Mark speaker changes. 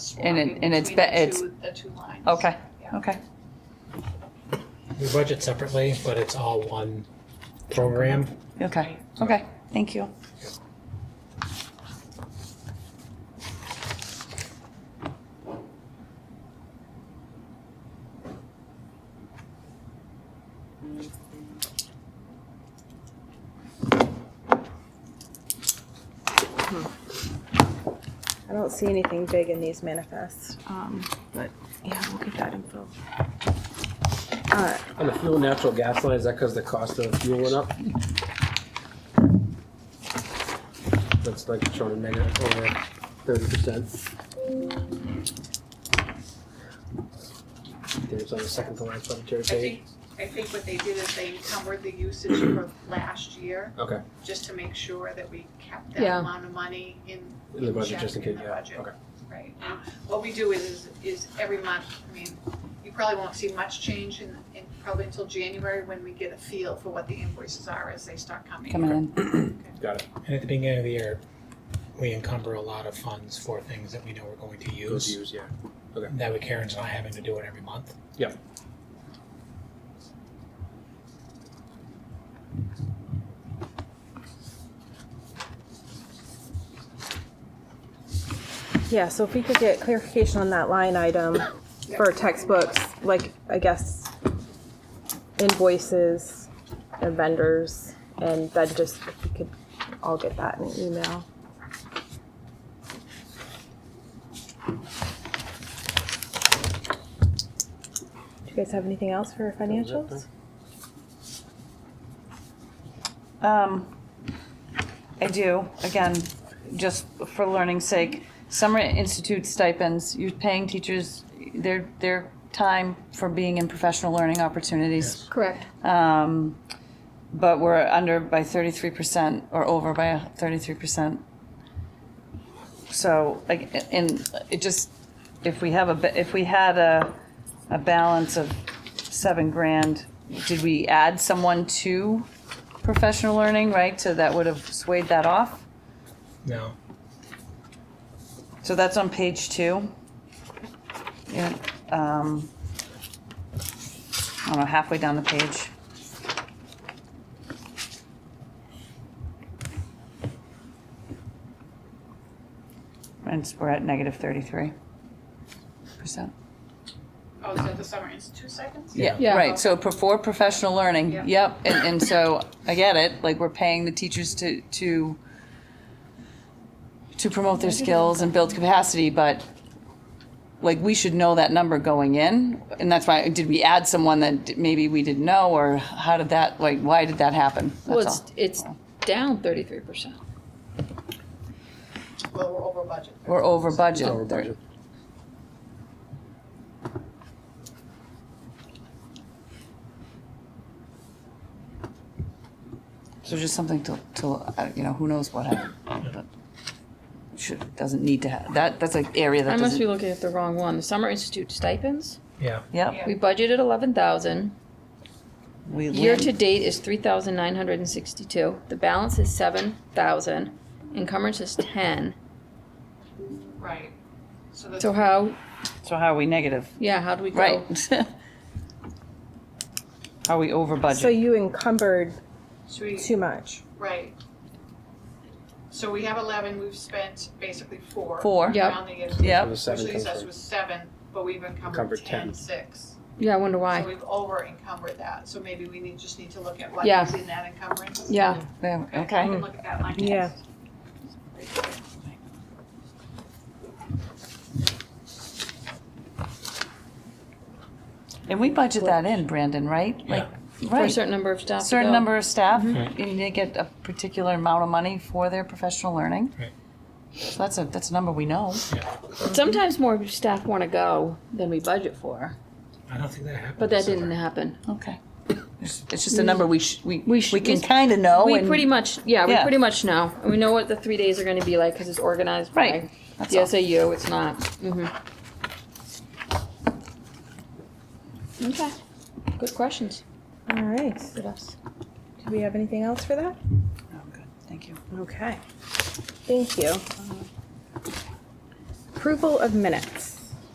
Speaker 1: And it- and it's be- it's-
Speaker 2: The two lines.
Speaker 1: Okay,
Speaker 2: Yeah.
Speaker 1: okay.
Speaker 3: We budget separately, but it's all one program.
Speaker 1: Okay, okay, thank you.
Speaker 4: I don't see anything big in these manifests,
Speaker 5: Um,
Speaker 4: but yeah, we'll get that info. Uh,
Speaker 6: On the fuel and natural gas line, is that because the cost of fuel went up? That's like showing a negative over thirty percent. It's on the uh, second to last budgetary
Speaker 2: I
Speaker 6: page.
Speaker 2: think, I think what they did is they encumbered the usage for last year.
Speaker 6: Okay.
Speaker 2: Just to make sure that we kept that
Speaker 5: Yeah.
Speaker 2: amount of money in.
Speaker 6: In the budget,
Speaker 2: check
Speaker 6: just in case,
Speaker 2: the
Speaker 6: yeah,
Speaker 2: budget,
Speaker 6: okay.
Speaker 2: Right. And What we do is, is every month, I mean, you probably won't see much change in, in probably until January when we get a feel for what the invoices are as they start coming.
Speaker 1: Coming in.
Speaker 6: Got it.
Speaker 3: And at the beginning of the year, we encumber a lot of funds for things that we know we're going to
Speaker 6: Those
Speaker 3: use.
Speaker 6: views, yeah.
Speaker 3: That way Karen's not having to do it every month.
Speaker 4: yeah, so if we could get clarification on that line item for textbooks, like, I guess invoices and vendors, and then just, if we could all get that in an email. Do you guys have anything else for financials?
Speaker 1: Um, I do, again, just for learning's sake, summer institute stipends, you're paying teachers their, their time for being in professional learning opportunities.
Speaker 5: correct.
Speaker 1: Um, but we're under by thirty-three percent or over by thirty-three percent. So, like, and it just, if we have a, ba- if we had a, a balance of seven grand, did we add someone to professional learning, right? So that would have swayed that off.
Speaker 3: No,
Speaker 1: So that's on page two. Yeah, um, I don't know, halfway down the page. And it's- we're at negative thirty-three percent.
Speaker 2: Oh, is that the summer institute seconds?
Speaker 3: Yeah.
Speaker 5: Yeah.
Speaker 1: Right, so pro- for professional learning,
Speaker 2: Yeah.
Speaker 1: yep, and, and so, I get it, like, we're paying the teachers to, to, to promote their skills and build capacity, but, like, we should know that number going in, and that's why, did we add someone that d- maybe we didn't know, or how did that, like, why did that happen?
Speaker 5: Well,
Speaker 1: That's
Speaker 5: it's,
Speaker 1: all.
Speaker 5: it's down thirty-three percent.
Speaker 2: Well, we're over budget.
Speaker 1: We're over budget.
Speaker 6: Over budget.
Speaker 1: So just something to, to, uh, you know, who knows what happened, but should, doesn't need to have, that, that's an area
Speaker 5: I
Speaker 1: that
Speaker 5: must be
Speaker 1: doesn't.
Speaker 5: looking at the wrong one. The summer institute stipends,
Speaker 3: yeah.
Speaker 1: Yep,
Speaker 5: we budgeted eleven thousand.
Speaker 1: we
Speaker 5: Year
Speaker 1: land,
Speaker 5: to date is three thousand nine hundred and sixty-two. The balance is seven thousand. Encumbrance is ten.
Speaker 2: Right. So that's.
Speaker 5: So how,
Speaker 1: so how are we negative?
Speaker 5: yeah, how do we go?
Speaker 1: Right. Are we over
Speaker 4: So
Speaker 1: budget?
Speaker 4: you encumbered
Speaker 2: so we-
Speaker 4: too much.
Speaker 2: Right. So we have eleven, we've spent basically four.
Speaker 1: Four.
Speaker 5: Yep.
Speaker 2: Around the year.
Speaker 1: Yep.
Speaker 6: Where the
Speaker 2: Which
Speaker 6: seven
Speaker 2: leaves
Speaker 6: comes
Speaker 2: us
Speaker 6: from.
Speaker 2: with seven, but we've
Speaker 6: Encumbered
Speaker 2: encumbered
Speaker 6: ten.
Speaker 2: ten, six.
Speaker 5: Yeah, I wonder
Speaker 2: So
Speaker 5: why.
Speaker 2: we've over encumbered that, so maybe we need, just need to look at what
Speaker 5: Yeah.
Speaker 2: is in that encumbrance.
Speaker 5: Yeah,
Speaker 1: Yeah,
Speaker 2: I
Speaker 1: Okay,
Speaker 2: can look at that line.
Speaker 4: Yeah.
Speaker 2: next.
Speaker 1: and we budget that in, Brandon, right? Like,
Speaker 5: for a
Speaker 1: Right,
Speaker 5: certain number of staff. to
Speaker 1: certain
Speaker 5: go. Mm-hmm.
Speaker 1: number of staff,
Speaker 3: Mhm.
Speaker 1: and they get a particular amount of money for their professional learning.
Speaker 3: Right.
Speaker 1: So that's a, that's a number we know.
Speaker 5: Sometimes more staff want to go than we budget for,
Speaker 3: I don't think that happened.
Speaker 5: but that
Speaker 3: this
Speaker 5: didn't
Speaker 3: summer.
Speaker 5: happen.
Speaker 1: Okay. It's it's just a number we, sh- we,
Speaker 5: We sh-
Speaker 1: we can
Speaker 5: we-
Speaker 1: kind of know.
Speaker 5: We
Speaker 1: Oh, and-
Speaker 5: pretty much, yeah, we
Speaker 1: Yeah.
Speaker 5: pretty much know. And we know what the three days are going to be like because it's organized by
Speaker 1: Right. That's all.
Speaker 5: the SAU. It's not. hmm Okay. Good questions.
Speaker 4: All right.
Speaker 5: Good us.
Speaker 4: Do we have anything else for that?
Speaker 1: Oh, good. Thank you.
Speaker 4: Okay. Thank you. Approval of minutes.